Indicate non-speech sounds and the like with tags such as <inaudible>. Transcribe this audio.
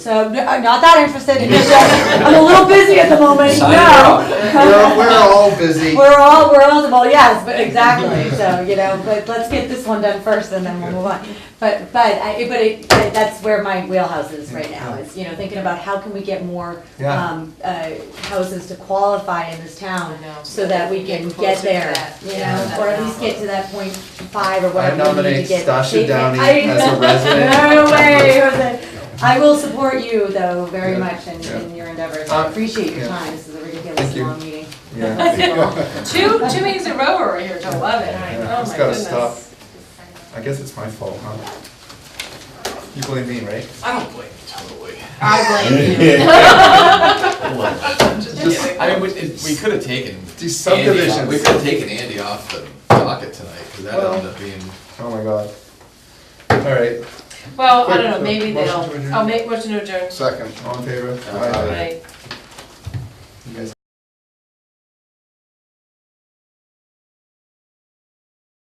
So n- I'm not that interested. It's just, I'm a little busy at the moment. Sign <laughs> her No. We're, we're all <laughs> busy. We're all, we're all, well, yes, but exactly. So, you know, but let's get this one done first and then we'll move on. But, but I, but it, but that's where my wheelhouse is right now is, you know, thinking about how can we get more, Yeah. um, uh, houses to qualify in this town so that we can get closer to there, that. you Yeah, know, that or at least balance. get to that point five or I whatever we need nominate to get. Stasha Downey I- <laughs> as a resident. No way, Jose. I will support you though very much in, in your endeavors. I Uh, appreciate your yeah. time. This is a ridiculous Thank you. long meeting. Yeah, Two, two meetings in a row over here till eleven. Yeah, Oh it's my gotta goodness. stop. I guess it's my fault, huh? You blame me, right? I don't blame I <laughs> blame you. Just, I mean, we, it- we could have taken. Do Andy off- We subdivisions. could have taken Andy off the docket tonight, because that ended up being, Oh my god. All right, Well, I Quick, don't know, so maybe Oh, motion to adjourn. they'll, I'll make, motion to adjourn. second, all in favor? Aye. Right.